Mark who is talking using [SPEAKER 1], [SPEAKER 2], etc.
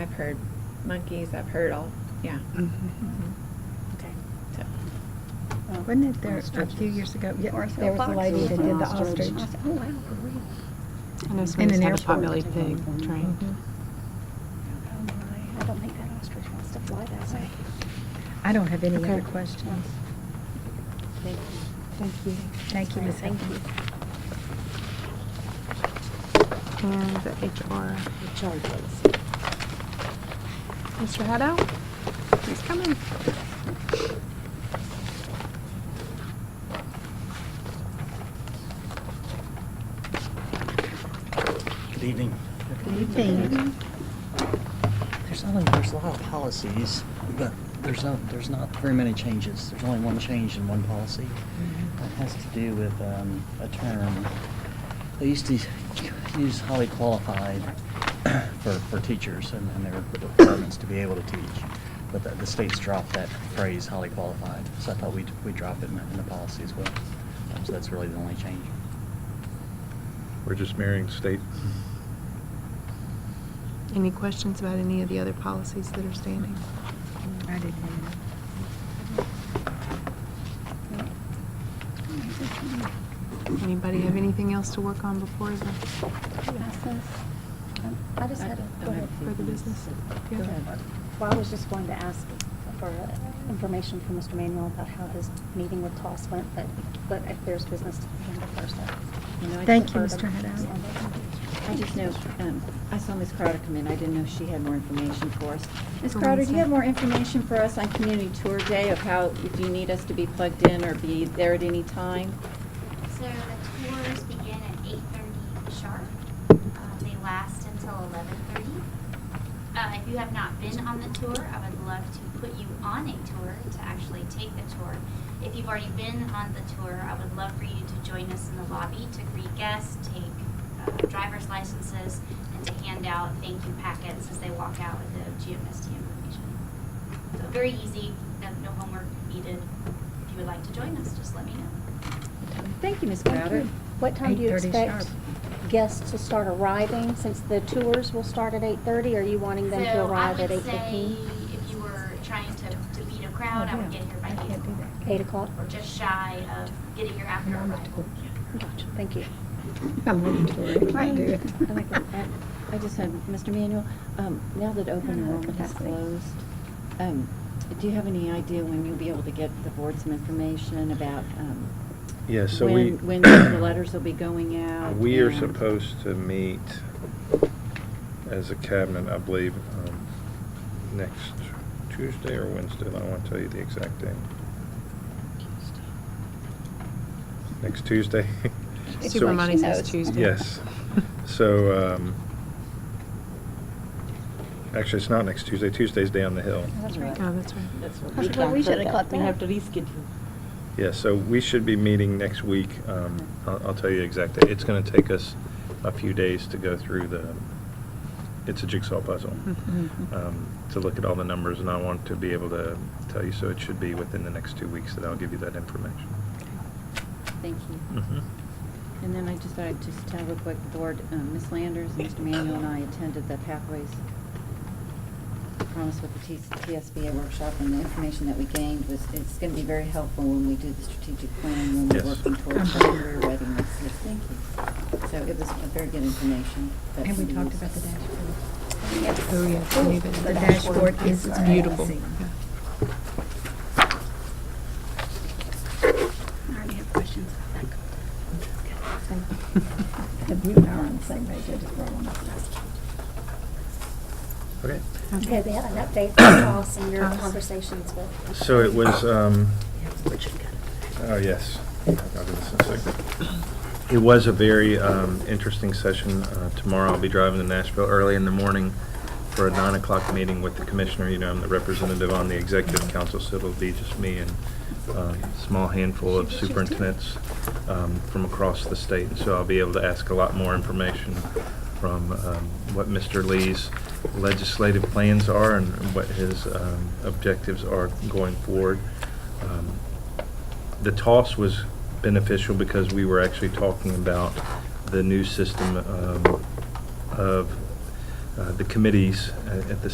[SPEAKER 1] heard monkeys, I've heard all, yeah. Mhm.
[SPEAKER 2] Okay.
[SPEAKER 1] So,
[SPEAKER 3] Wasn't it there a few years ago? Yeah, there was a lady that did the ostrich.
[SPEAKER 2] Oh, wow, really?
[SPEAKER 4] I know
[SPEAKER 3] In
[SPEAKER 4] somebody's
[SPEAKER 3] an
[SPEAKER 4] had a pot
[SPEAKER 3] airport.
[SPEAKER 4] belly pig trained.
[SPEAKER 2] Oh, my. I don't think that ostrich wants to fly that way.
[SPEAKER 3] I don't have any
[SPEAKER 4] Okay.
[SPEAKER 3] other questions.
[SPEAKER 2] Thank
[SPEAKER 4] Thank you.
[SPEAKER 3] Thank you, Ms.
[SPEAKER 2] Thank
[SPEAKER 3] Hickman.
[SPEAKER 2] you.
[SPEAKER 4] And the HR.
[SPEAKER 2] The charge policy.
[SPEAKER 4] Mr. Hadow, please come in.
[SPEAKER 5] Good evening.
[SPEAKER 3] Thank
[SPEAKER 5] There's only, there's a lot of policies, but there's not, there's not very many changes. There's only one change in one policy. That has to do with um, a term. They used to use highly qualified for, for teachers and and their requirements to be able to teach. But the- the state's dropped that phrase, highly qualified, so I thought we'd, we'd drop it in the- in the policy as well. Um, So that's really the only change.
[SPEAKER 6] We're just mirroring state.
[SPEAKER 4] Any questions about any of the other policies that are standing?
[SPEAKER 3] I didn't.
[SPEAKER 4] Anybody have anything else to work on before the Oh,
[SPEAKER 2] License. Um, I just had a, go ahead.
[SPEAKER 4] for the business? Yeah.
[SPEAKER 2] Go ahead. Well, I was just going to ask for uh, information from Mr. Manuel about how his meeting with Toss went, but, but if there's business to handle first.
[SPEAKER 7] You know, I
[SPEAKER 3] Thank you,
[SPEAKER 7] deferred
[SPEAKER 3] Mr.
[SPEAKER 7] them.
[SPEAKER 3] Hadow.
[SPEAKER 7] I just know, um, I saw Ms. Crowder come in, I didn't know if she had more information for us. Ms.
[SPEAKER 4] For
[SPEAKER 7] Crowder, do
[SPEAKER 4] Wednesday.
[SPEAKER 7] you have more information for us on community tour day of how, if you need us to be plugged in or be there at any time?
[SPEAKER 8] So the tours begin at eight thirty sharp. Um, they last until eleven thirty. Uh, if you have not been on the tour, I would love to put you on a tour to actually take the tour. If you've already been on the tour, I would love for you to join us in the lobby to greet guests, take uh, driver's licenses, and to hand out thank you packets as they walk out with the GMSD information. So very easy, no, no homework needed. If you would like to join us, just let me know.
[SPEAKER 7] Thank you, Ms. Crowder.
[SPEAKER 2] What time do you
[SPEAKER 3] 8:30
[SPEAKER 2] expect
[SPEAKER 3] sharp.
[SPEAKER 2] guests to start arriving, since the tours will start at eight thirty? Are you wanting them to arrive at eight
[SPEAKER 8] So I
[SPEAKER 2] fifteen?
[SPEAKER 8] would say if you were trying to, to beat a crowd, Oh, I would get here by
[SPEAKER 3] I
[SPEAKER 8] eight
[SPEAKER 3] can't do
[SPEAKER 8] o'clock.
[SPEAKER 3] that.
[SPEAKER 2] Eight o'clock?
[SPEAKER 8] Or just shy of getting here after arrival.
[SPEAKER 2] Gotcha, thank you.
[SPEAKER 3] I'm looking to it. I can't do it.
[SPEAKER 7] I like that. I- I just had, Mr. Manuel, um, now that open enrollment is closed, um, do you have any idea when you'll be able to get the board some information about, um,
[SPEAKER 6] Yeah, so we,
[SPEAKER 7] when, when the letters will be going out?
[SPEAKER 6] we are
[SPEAKER 7] and-
[SPEAKER 6] supposed to meet as a cabinet, I believe, um, next Tuesday or Wednesday. I don't want to tell you the exact day. Next Tuesday. So-
[SPEAKER 4] Super Money says
[SPEAKER 1] knows.
[SPEAKER 4] Tuesday.
[SPEAKER 6] Yes. So, um, actually, it's not next Tuesday. Tuesday's down the hill.
[SPEAKER 2] That's right.
[SPEAKER 4] Oh, that's right.
[SPEAKER 7] That's what
[SPEAKER 3] That's what we
[SPEAKER 7] talked
[SPEAKER 3] should have
[SPEAKER 7] about.
[SPEAKER 3] caught
[SPEAKER 7] We
[SPEAKER 3] that.
[SPEAKER 7] have to reschedule.
[SPEAKER 6] Yeah, so we should be meeting next week. Um, I'll I'll tell you exactly. It's going to take us a few days to go through the, it's a jigsaw puzzle, um, to look at all the numbers, and I want to be able to tell you, so it should be within the next two weeks that I'll give you that information. Mm-hmm.
[SPEAKER 7] Thank you. And then I just thought I'd just tell real quick, the board, um, Ms. Landers, Mr. Manuel and I attended the Pathways Promise with the T- TSBA workshop, and the information that we gained was, it's gonna be very helpful when we do the strategic plan, when
[SPEAKER 6] Yes.
[SPEAKER 7] we're working towards the career readiness. Yes, thank you. So it was a very good information. that
[SPEAKER 3] And we
[SPEAKER 7] we
[SPEAKER 3] talked
[SPEAKER 7] used.
[SPEAKER 3] about the dashboard.
[SPEAKER 4] Oh, yes, I knew that.
[SPEAKER 3] The dashboard is
[SPEAKER 4] It's beautiful.
[SPEAKER 3] amazing.
[SPEAKER 4] Yeah.
[SPEAKER 2] I already have questions about that.
[SPEAKER 3] And you and I are on the same page, I just brought one up.
[SPEAKER 6] Okay.
[SPEAKER 2] Okay, we had an update from Ross and your
[SPEAKER 4] Ross.
[SPEAKER 2] conversations with.
[SPEAKER 6] So it was, um, oh, yes. I'll do this in a second. It was a very um, interesting session. Uh, Tomorrow I'll be driving to Nashville early in the morning for a nine o'clock meeting with the commissioner. You know, I'm the representative on the executive council, so it'll be just me and um, a small handful of superintendents um, from across the state. And so I'll be able to ask a lot more information from um, what Mr. Lee's legislative plans are and what his um, objectives are going forward. Um, the toss was beneficial because we were actually talking about the new system um, of uh, the committees at at the